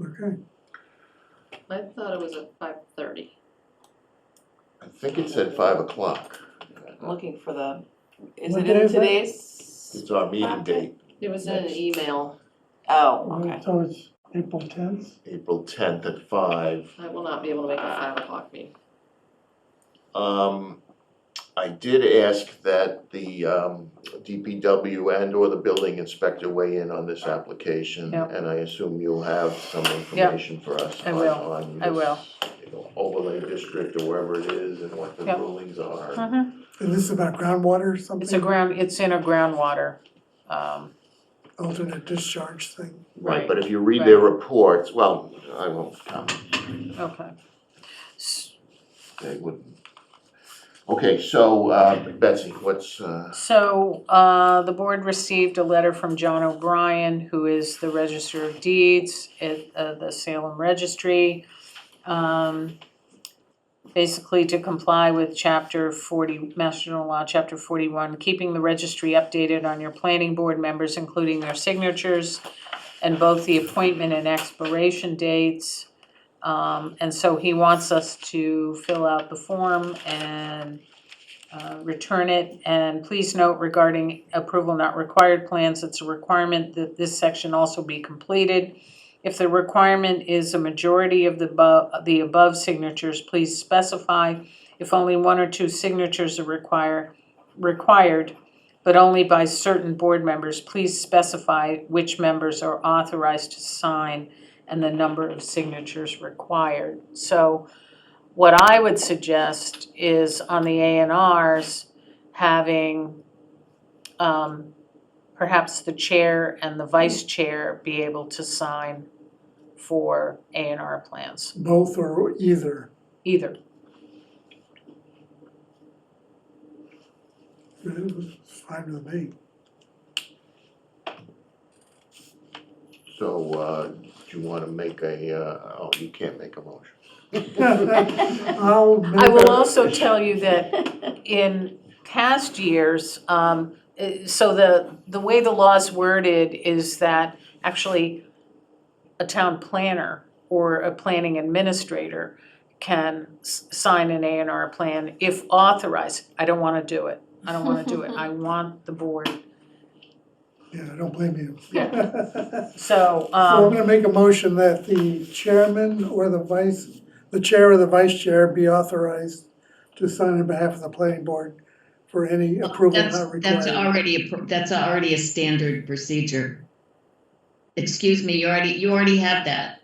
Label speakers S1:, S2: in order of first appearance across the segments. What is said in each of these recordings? S1: Okay.
S2: I thought it was at five thirty.
S3: I think it said five o'clock.
S4: looking for the, is
S1: What
S4: it
S1: day
S4: in
S1: is that?
S4: today's?
S3: It's our meeting
S4: Okay.
S3: date,
S2: It was in an
S3: Next.
S2: email,
S4: Oh,
S1: Well,
S4: okay.
S1: So it's April tenth,
S3: April tenth at five.
S2: I will not be able to make a five o'clock meeting.
S3: Um, I did ask that the um DPW and or the building inspector weigh in on this application.
S5: Yeah.
S3: And I assume you'll have some information for us
S5: I
S3: on
S5: will.
S3: on
S5: I
S3: this,
S5: will.
S3: you know, overlay district or wherever it is and what the
S5: Yeah.
S3: rulings are.
S5: Mhm.
S1: and this is about groundwater or something?
S5: It's a ground, it's in a groundwater, um,
S1: Alternate discharge thing,
S3: Right,
S5: Right.
S3: but if you read their reports, well, I won't comment.
S5: okay. S-
S3: They wouldn't. Okay, so uh, Betsy, what's, uh,
S5: So, uh, the board received a letter from John O'Brien, who is the Register of Deeds at, uh, the Salem Registry. Um, basically to comply with chapter forty, Master General Law, chapter forty-one, keeping the registry updated on your planning board members, including their signatures and both the appointment and expiration dates. Um, and so he wants us to fill out the form and uh, return it. And please note regarding approval not required plans, it's a requirement that this section also be completed. If the requirement is a majority of the above, the above signatures, please specify. If only one or two signatures are require, required, but only by certain board members, please specify which members are authorized to sign and the number of signatures required. So what I would suggest is on the A and Rs, having um, perhaps the chair and the vice chair be able to sign for A and R plans,
S1: both or either,
S5: either.
S1: it was fine with me.
S3: so uh, do you want to make a, uh, oh, you can't make a motion.
S1: I'll make
S5: I will
S1: a-
S5: also tell you that in past years, um, eh, so the, the way the law's worded is that actually a town planner or a planning administrator can s- sign an A and R plan if authorized. I don't wanna do it. I don't wanna do it. I want the board.
S1: Yeah, I don't blame you.
S5: So,
S1: So I'm
S5: um,
S1: gonna make a motion that the chairman or the vice, the chair or the vice chair be authorized to sign on behalf of the planning board for any approval
S6: That's,
S1: not required.
S6: that's already, appro- that's already a standard procedure. Excuse me, you already, you already have that.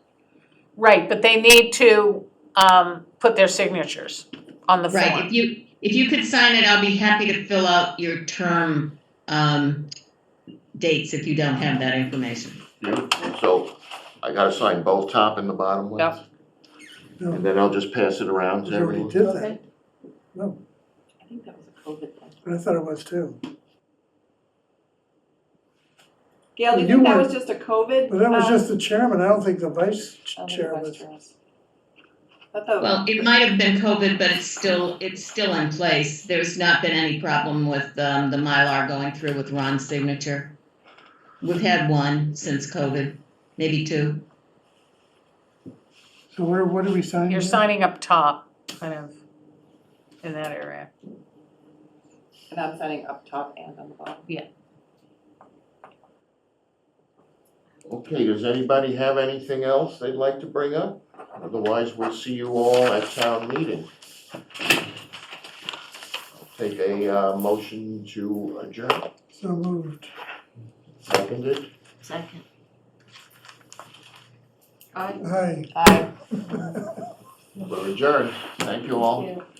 S5: right, but they need to, um, put their signatures on the form.
S6: Right, if you, if you could sign it, I'll be happy to fill out your term, um, dates if you don't have that information.
S3: So I got to sign both top and the bottom ones?
S5: Yep.
S3: And then I'll just pass it around
S1: No,
S3: to
S1: you already
S3: everyone?
S1: did that,
S4: I think that was a COVID thing.
S1: I thought it was too,
S4: Gail, do you
S1: You
S4: think that
S1: were-
S4: was just a COVID?
S1: but that was
S4: um,
S1: just the chairman, I don't think Oh, the vice
S4: I don't think
S1: chair
S4: it was
S1: was.
S4: yours. I thought-
S6: Well, it might have been COVID, but it's still, it's still in place. There's not been any problem with, um, the Mylar going through with Ron's signature. We've had one since COVID, maybe two.
S1: So where, what did we sign?
S5: You're
S1: here?
S5: signing up top, kind of, in that area.
S4: And I'm signing up top and on the bottom.
S3: Okay, does anybody have anything else they'd like to bring up? Otherwise, we'll see you all at town meeting. I'll Take a uh, motion to adjourn,
S1: So moved.
S3: seconded.
S2: Second. I
S1: Aye.
S4: Aye.
S3: We're adjourned. Thank you all.
S2: Yeah.